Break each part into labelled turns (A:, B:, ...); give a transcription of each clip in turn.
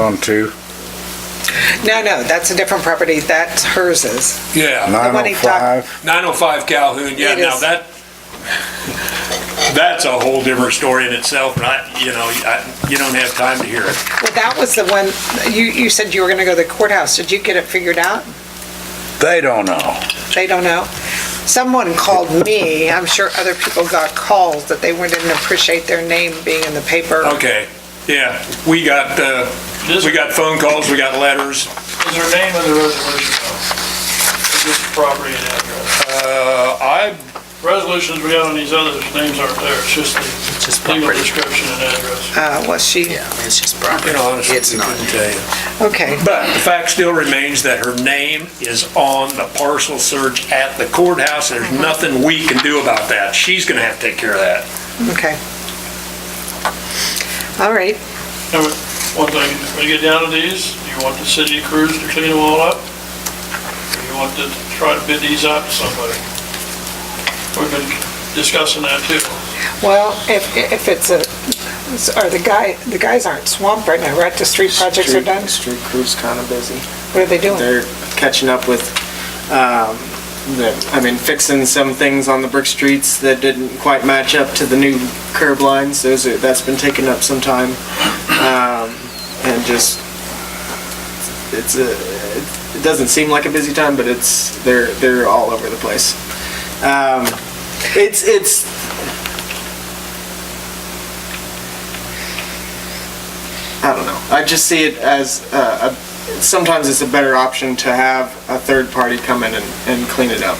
A: on to?
B: No, no, that's a different property. That's hers is.
C: Yeah,
B: one he talked-
A: 905?
C: 905 Calhoun, yeah,
B: It
C: now
B: is.
C: that, that's a whole different story in itself, and I, you know, I- you don't have time to hear it.
B: Well, that was the one, you, you said you were gonna go to the courthouse. Did you get it figured out?
A: They don't know.
B: They don't know. Someone called me. I'm sure other people got calls that they weren't- didn't appreciate their name being in the paper.
D: Oh.
C: Okay, yeah, we got, uh,
E: This
C: we got phone calls, we got letters,
E: Is her name on the resolution though? Is this property and address?
C: uh, I,
E: Resolutions we have on these others, names aren't there, it's just the
F: It's just
E: legal
F: property.
E: description and address.
B: Uh, was she,
F: Yeah, it's just property.
C: you know, honestly,
F: It's not.
C: couldn't tell you.
B: okay.
C: But the fact still remains that her name is on the parcel search at the courthouse. There's nothing we can do about that. She's gonna have to take care of that.
B: Okay. All right,
E: Now, One thing, when you get down to these, do you want the city crews to clean them all up? Or you want to try to bid these out to somebody? We've been discussing that too.
B: well, if, if it's a, or the guy, the guys aren't swamped right now, right? The street projects are
D: Street-
B: done?
D: Street crew's kind of busy.
B: What are they doing?
D: They're catching up with, um, the, I mean, fixing some things on the brick streets that didn't quite match up to the new curb lines. Those are, that's been taking up some time. Um, and just, it's a, it doesn't seem like a busy time, but it's, they're, they're all over the place. Um, it's, it's, I don't know. I just see it as uh, a, sometimes it's a better option to have a third party come in and, and clean it up.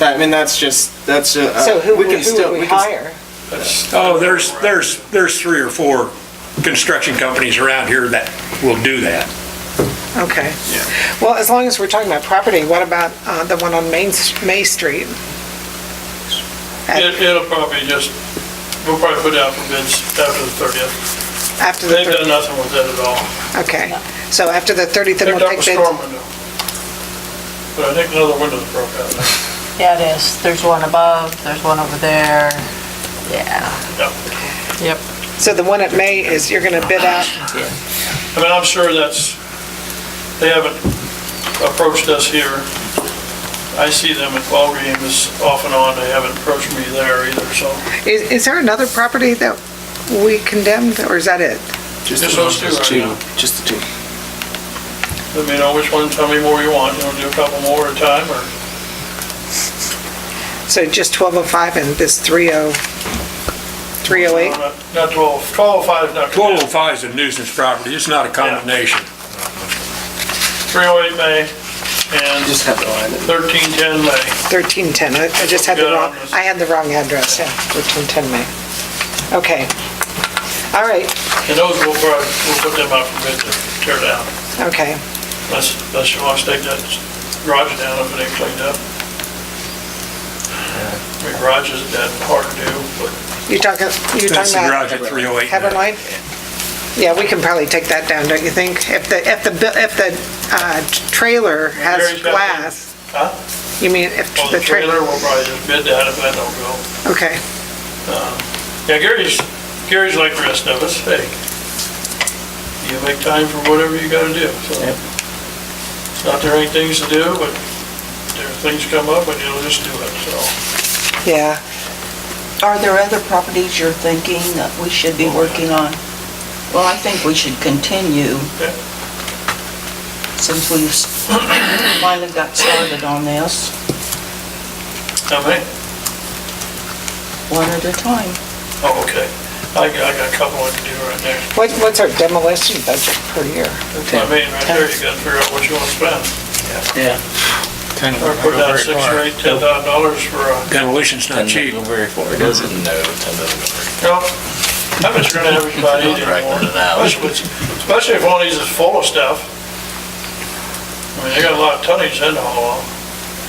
D: That, I mean, that's just that's a,
B: So who,
D: Uh, we
B: would-
D: can
B: who
D: still
B: would we
D: can s-
B: hire?
E: That's-
C: Oh, there's, there's, there's three or four construction companies around here that will do that.
B: Okay. Well, as long as we're talking about property, what about uh, the one on Main, S- May Street?
E: It- It'll probably just, we'll probably put it out for bids after the 30th.
B: After the
E: They've done
B: 30th?
E: nothing with that at all.
B: Okay. So after the 30th, then
E: Picked
B: we'll
E: up a
B: take bids?
E: storm window. But I think another window's broke out now.
G: Yeah, it is. There's one above, there's one over there. Yeah.
E: Yep.
G: Yep.
B: So the one at May is, you're going to bid out?
E: I mean, I'm sure that's, they haven't approached us here. I see them at ball games off and on, they haven't approached me there either, so.
B: Is, is there another property that we condemned, or is that it?
D: Just,
E: Just
D: the-
E: those two right now.
D: Just the two.
E: Let me know which one, tell me more you want, you want to do a couple more at a time, or?
B: So just 1205 and this oh, 30, 308?
E: Not 12, 1205, not.
C: 1205 is a nuisance property. It's not a condemnation.
E: 308 May and
D: Just have the line.
E: 1310 May.
B: 1310, I I just had the wrong, I had the wrong address, yeah, 1310 May. Okay. All right,
E: And those will, probably- we'll put them out for bid to tear down,
B: okay.
E: unless, unless you want to stake that garage down if it ain't cleaned up. I mean, garage isn't that hard to do, but
B: You're talking, you're
C: That's
B: talking
C: the
B: about
C: garage at 308.
B: Heber Line? Yeah, we can probably take that down, don't you think? If the, if the, bu- if the uh, trailer has
E: Gary's got
B: glass,
E: Huh?
B: you mean if
E: Well,
B: the
E: the
B: trailer,
E: trailer, we'll probably just bid that if that don't go.
B: okay,
E: Yeah, Gary's, Gary's like the rest of us, hey, you make time for whatever you gotta do, so. It's not there ain't things to do, but there are things come up and you'll just do it, so.
B: yeah.
H: Are there other properties you're thinking that we should be working on? Well, I think we should continue
E: Yeah.
H: since we've s- finally got started on this,
E: How many?
H: one at a time.
E: Oh, okay. I got, I got a couple I can do right there.
B: What, what's our demolition budget per year?
E: That's what I mean, right there, you gotta figure out what you wanna spend.
F: Yeah. Kind
E: Or put down six or eight, ten thousand dollars for uh, a,
C: Demolition's not cheap.
F: go very far, does it?
E: uh, no,
F: No,
E: I bet you're gonna have everybody eating more. Especially especially if one of these is full of stuff. I mean, they got a lot of tonnage in the haul.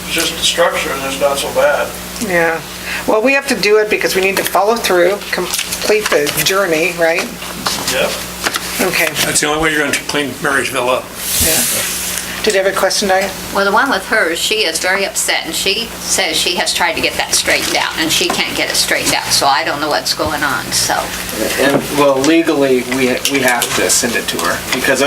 E: It's just the structure that's not so bad.
B: Yeah, well, we have to do it because we need to follow through, complete the journey, right?
E: Yep.
B: Okay,
C: That's the only way you're going to clean Marysville up.
B: did you have a question, Diane?
I: Well, the one with hers, she is very upset, and she says she has tried to get that straightened out, and she can't get it straightened out, so I don't know what's going on, so.
D: And well, legally, we we have to send it to her because